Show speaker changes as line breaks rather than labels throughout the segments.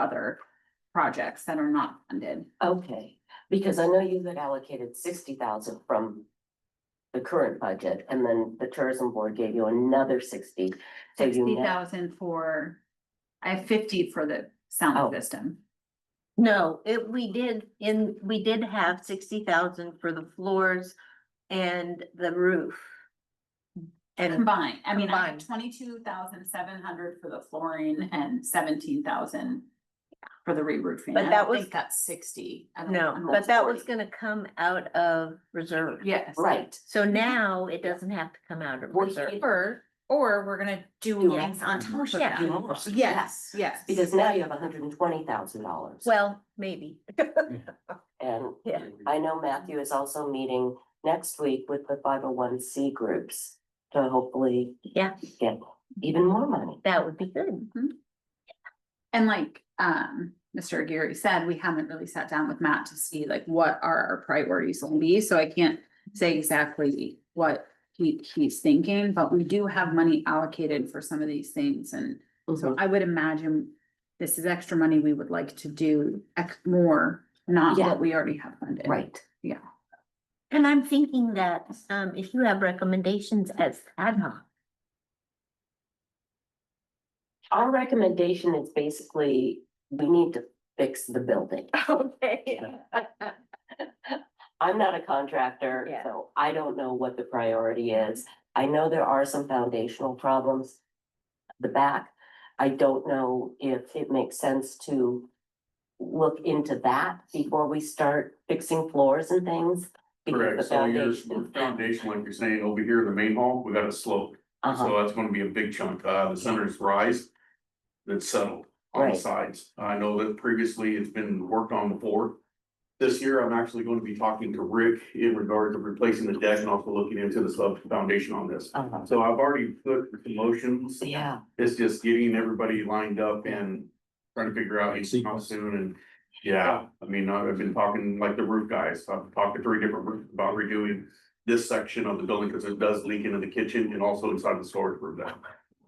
other projects that are not funded.
Okay, because I know you had allocated sixty thousand from the current budget, and then the tourism board gave you another sixty. So you
Sixty
net-
thousand for, I have fifty for the sound
Oh.
system.
No, it, we did in, we did have sixty thousand for the floors and the roof. And
Combined, I mean, I
Combined.
have twenty-two thousand seven hundred for the flooring and seventeen thousand for the re-roofing.
But
I
that
don't
was-
think That's sixty. I don't- I
no,
don't
but that was
40.
gonna come out of reserve.
Yes.
Right,
So now it doesn't have to come out of
Well,
reserve.
it-
Or, or we're gonna do
Do
things on top of
Yeah.
that.
almost-
Yes, yes.
because now you have hundred and twenty thousand dollars.
Well, maybe.
And
Yeah.
I know Matthew is also meeting next week with the five oh one C groups to hopefully
Yeah,
get even more money.
that would be good.
And like, um, Mr. Aguirre said, we haven't really sat down with Matt to see like what are our priorities will be, so I can't say exactly what he, he's thinking, but we do have money allocated for some of these things, and so I would imagine this is extra money we would like to do ex- more, not
Yeah.
what we already have funded.
Right,
And I'm thinking that, um, if you have recommendations as ad hoc,
our recommendation is basically, we need to fix the building.
Okay.
I'm not a contractor,
Yeah.
so I don't know what the priority is. I know there are some foundational problems. The back, I don't know if it makes sense to look into that before we start fixing floors and things. because
Correct,
the
so your
foundation-
foundation, like you're saying, over here, the main hall, we got a slope,
Uh-huh,
so that's gonna be a big chunk, uh, the center's rise. That's settled on the
Right.
sides, I know that previously it's been worked on before. This year, I'm actually gonna be talking to Rick in regard to replacing the deck and also looking into the sub foundation on this.
uh-huh,
So I've already put the motions,
yeah,
it's just getting everybody lined up and trying to figure out how soon and. Yeah, I mean, I've been talking like the roof guys, I've talked to three different roofs about redoing this section of the building because it does leak into the kitchen and also inside the storage room now.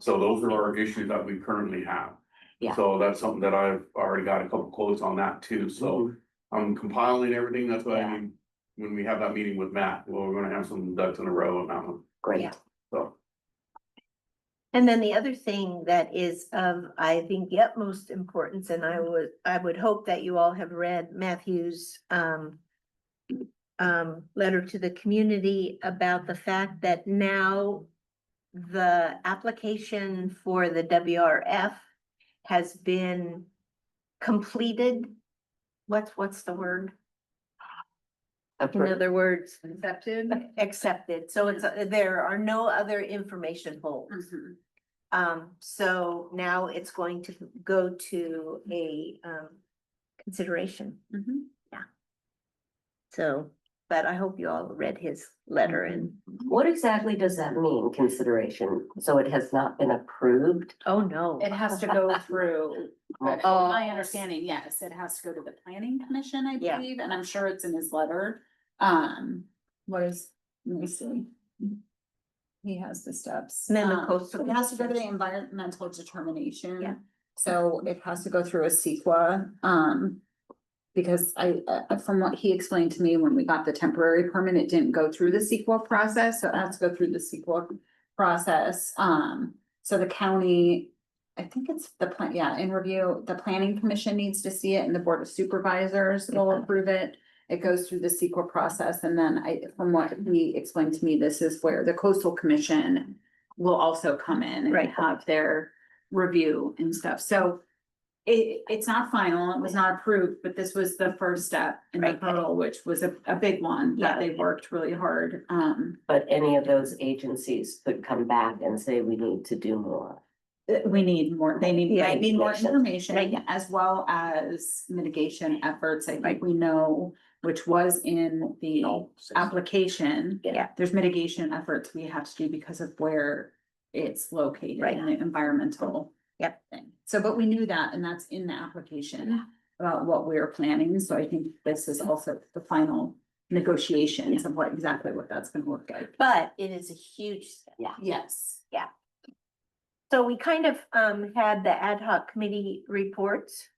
So those are our issues that we currently have.
Yeah.
So that's something that I've already got a couple quotes on that too, so I'm compiling everything, that's why I
Yeah.
mean. When we have that meeting with Matt, well, we're gonna have some ducks in a row on that one,
great.
so.
And then the other thing that is of, I think, the utmost importance, and I would, I would hope that you all have read Matthew's um. Um, letter to the community about the fact that now. The application for the WRF has been completed. What's, what's the word? In
Appro-
other words,
Accepted.
accepted. So it's, there are no other information holes.
Mm-hmm.
Um, so now it's going to go to a, um, consideration.
Mm-hmm.
So, but I hope you all read his letter and,
What exactly does that mean, consideration? So it has not been approved?
oh, no.
It has to go through,
Oh,
my understanding, yes, it has to go to the planning commission, I
Yeah.
believe, and I'm sure it's in his letter. Um, what is, let me see. He has the steps.
And then the
Um,
coastal
It has to go to the
communication.
environmental determination.
Yeah.
So it has to go through a CEQA, um. Because I, uh, from what he explained to me when we got the temporary permit, it didn't go through the CEQA process, so it has to go through the CEQA process. Um, so the county, I think it's the plan, yeah, in review, the planning commission needs to see it and the board of supervisors will approve it. It goes through the CEQA process and then I, from what he explained to me, this is where the coastal commission will also come in
Right.
and have their review and stuff. So it, it's not final, it was not approved, but this was the first step in the
Right.
hurdle, which was a, a big one that
Yeah.
they worked really hard. Um,
But any of those agencies could come back and say, we need to do more.
that Uh, we need more, they need,
Yeah,
might need more
information.
Right,
information
yeah.
as well as mitigation efforts. I think we know, which was in the application.
Yeah.
There's mitigation efforts we have to do because of where it's located
Right.
in the environmental.
Yep.
thing. So, but we knew that and that's in the application about what we were planning. So I think this is also the final negotiations of what exactly what that's gonna look like.
But it is a huge step.
Yes.
So we kind of, um, had the ad hoc committee reports